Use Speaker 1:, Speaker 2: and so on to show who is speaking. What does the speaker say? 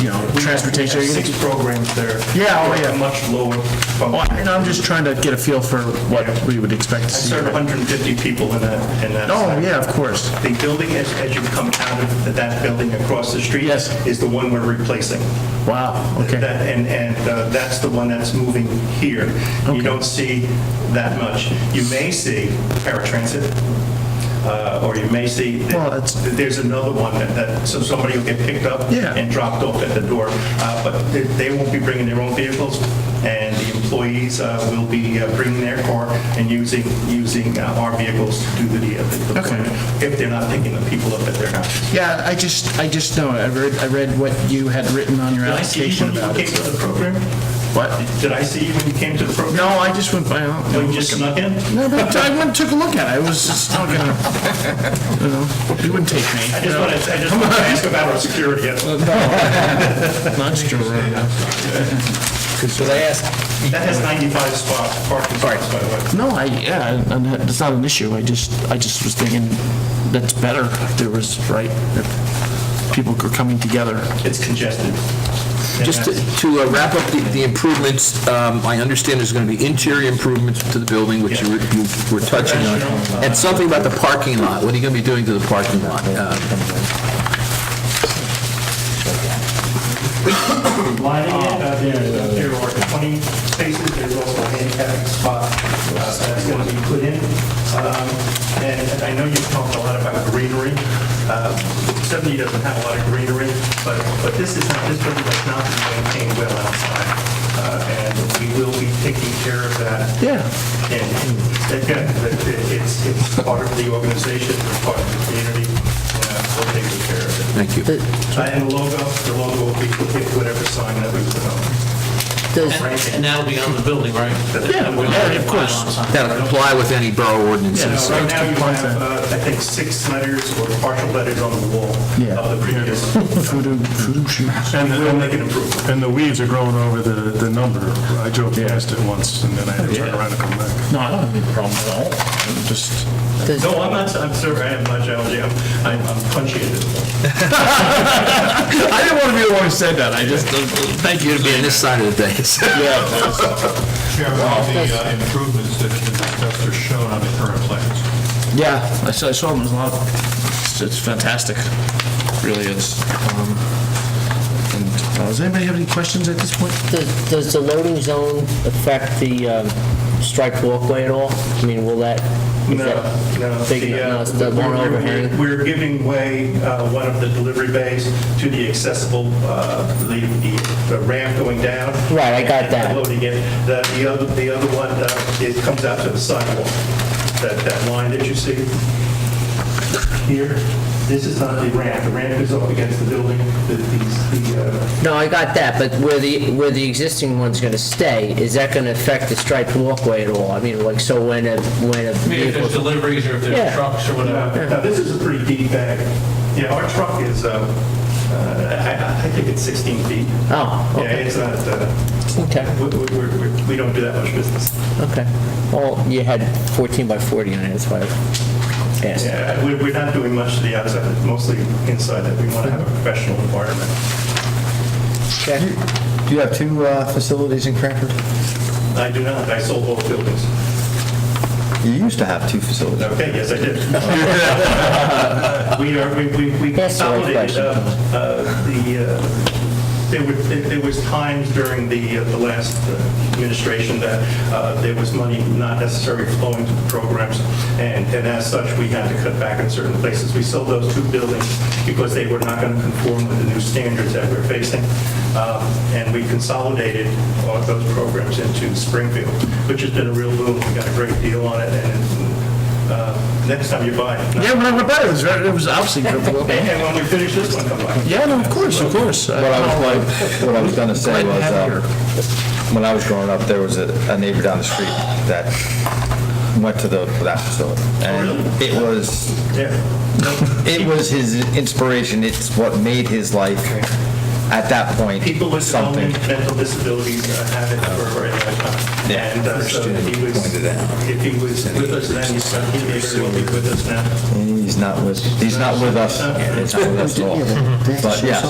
Speaker 1: you know, transportation.
Speaker 2: We have Six programs there.
Speaker 1: Yeah, oh, yeah.
Speaker 2: Much lower.
Speaker 1: Well,
Speaker 2: I
Speaker 1: And Oh, I'm just trying to get a feel for what we would expect to see.
Speaker 2: serve 150 people in that, in that.
Speaker 1: Oh,
Speaker 2: site.
Speaker 1: yeah, of course.
Speaker 2: The building, as, as you come out of th- that building across the street.
Speaker 1: Yes.
Speaker 2: Is the one we're replacing.
Speaker 1: Wow, okay.
Speaker 2: That- And, and uh, that's the one that's moving here.
Speaker 1: Okay.
Speaker 2: You don't see that much. You may see paratransit, uh, or you may see, that-
Speaker 1: Well, that's-
Speaker 2: that there's another one that- that, so somebody will get picked up
Speaker 1: Yeah.
Speaker 2: and dropped off at the door, Uh, but they- they won't be bringing their own vehicles, and the employees uh, will be uh, bringing their car and using, using uh, our vehicles to do the the deployment, if they're not picking the people up at their house.
Speaker 1: Yeah, I just, I just know, I read, I read what you had written on your
Speaker 2: Did I see you
Speaker 1: application
Speaker 2: when you
Speaker 1: about
Speaker 2: came
Speaker 1: it.
Speaker 2: to the program?
Speaker 1: What?
Speaker 2: Did I see you when you came to the program?
Speaker 1: No, I just went by, I
Speaker 2: Well,
Speaker 1: don't-
Speaker 2: you just snuck in?
Speaker 1: no, but I went, and took a look at it, I was just not gonna, you know, you wouldn't take
Speaker 2: I
Speaker 1: me.
Speaker 2: just want to, I just want to ask about our security. That
Speaker 1: Not just your room.
Speaker 3: Should I ask?
Speaker 2: has 95 spots, parking spots, by the way.
Speaker 1: No, I, yeah, and that- it's not an issue, I just, I just was thinking, that's better, if there was, right, if people were coming together.
Speaker 2: It's congested. And
Speaker 3: Just
Speaker 2: that's-
Speaker 3: to- to uh, wrap up the- the improvements, um, I understand there's going to be interior improvements to the building, which you were- you were touching on, and something about the parking lot. What are you going to be doing to the parking lot? Uh,
Speaker 2: Lining it, uh, there there are 20 spaces, there's also a handicap spot uh, that's going to be put in. Um, And I know you've talked a lot about greenery. Uh, 70 doesn't have a lot of greenery, but, but this is, not this building does not maintain well outside. Uh, And we will be taking care of that
Speaker 1: Yeah.
Speaker 2: And again, that it- it's, it's part of the organization, it's part of the community, and we'll take good care of it.
Speaker 3: Thank you.
Speaker 2: Uh, And the logo, the logo will be, will get whatever sign that we put on.
Speaker 4: And and that'll be on the building, right?
Speaker 1: Yeah,
Speaker 4: We'll
Speaker 1: yeah, of
Speaker 4: have a
Speaker 1: course.
Speaker 4: pylon sign.
Speaker 3: That'll comply with any borough ordinances.
Speaker 2: Now, Right now, you have, uh, I think, six letters or partial letters on the wall
Speaker 1: Yeah.
Speaker 2: of the previous.
Speaker 1: Voodoo, voodoo shoes.
Speaker 5: And
Speaker 2: We'll make an
Speaker 5: the,
Speaker 2: improvement.
Speaker 5: and the weeds are growing over the, the number. I drove past it once, and then I had to turn around and come back.
Speaker 1: No, I don't have any problem at all. I'm just,
Speaker 2: No, I'm not, I'm sorry, I have much allergy, I'm, I'm I'm punchy at this point.
Speaker 1: I didn't want to be the one who said that. I just, uh, thank you.
Speaker 3: You're going to be on this side of the dais.
Speaker 6: Chairman, all the uh, improvements that have been discussed are shown on the current plans.
Speaker 1: Yeah, I saw, I saw them. There's a lot. It's, it's fantastic. Really is. Um, and, uh, does anybody have any questions at this point?
Speaker 7: Does does the loading zone affect the um, striped walkway at all? I mean, will that? is
Speaker 2: No,
Speaker 7: that
Speaker 2: no.
Speaker 7: big
Speaker 2: the, uh,
Speaker 7: enough? No, it's the
Speaker 2: we're-
Speaker 7: one
Speaker 2: we're-
Speaker 7: overhang?
Speaker 2: We're giving way, uh, one of the delivery bays to the accessible, uh, the the- the ramp going down.
Speaker 7: Right, I got
Speaker 2: and
Speaker 7: that.
Speaker 2: Loading it. The the other, the other one, uh, it comes out to the sidewalk. That, that line that you see here, this is not the ramp. The ramp is up against the building, the, these- the, uh,
Speaker 7: No, I got that, but where the, where the existing one's going to stay, is that going to affect the striped walkway at all? I mean, like, so when a, when a
Speaker 4: I mean, If there's
Speaker 7: vehicle...
Speaker 4: deliveries or if
Speaker 7: Yeah.
Speaker 4: there's trucks or whatever.
Speaker 2: Now, now, this is a pretty deep bag. Yeah, our truck is, uh, uh, I I think it's 16 feet.
Speaker 7: Oh,
Speaker 2: Yeah,
Speaker 7: okay.
Speaker 2: it's not, uh,
Speaker 7: Okay,
Speaker 2: we- we we're- we're- we don't do that much business.
Speaker 7: okay. Well, you had 14 by 40 on it, that's why I asked.
Speaker 2: Yeah, we- we're not doing much to the outside, it's mostly inside that we want to have a professional environment.
Speaker 8: Do you have two uh, facilities in Cranford?
Speaker 2: I do not, I sold both buildings.
Speaker 8: You used to have two facilities.
Speaker 2: Okay, yes, I did. We are, we, we we
Speaker 7: That's the right
Speaker 2: consolidated uh,
Speaker 7: question.
Speaker 2: uh, the, uh, there were, there there was times during the, uh, the last uh, administration that uh, there was money not necessarily flowing to the programs, and, and as such, we had to cut back in certain places. We sold those two buildings because they were not going to conform with the new standards that we're facing, Um, and we consolidated all of those programs into Springfield, which has been a real boom. We got a great deal on it, and uh, next time you buy it.
Speaker 1: Yeah, when I went by, it was very, it was obviously.
Speaker 2: And and when we finish this one, come back.
Speaker 1: Yeah, no, of course, of course.
Speaker 8: What I was, what I was gonna say was, um, when I was growing up, there was a a neighbor down the street that went to the, that facility. And it was,
Speaker 2: Yeah.
Speaker 8: it was his inspiration, it's what made his life at that point
Speaker 2: People with
Speaker 8: something.
Speaker 2: developmental mental disabilities uh, have it for a very long time.
Speaker 8: Yeah.
Speaker 2: And uh, so if he was, if he was with us then, he's not- he may very well be with us now.
Speaker 8: He's not with, he's not with us, he's not with us at all. But yes.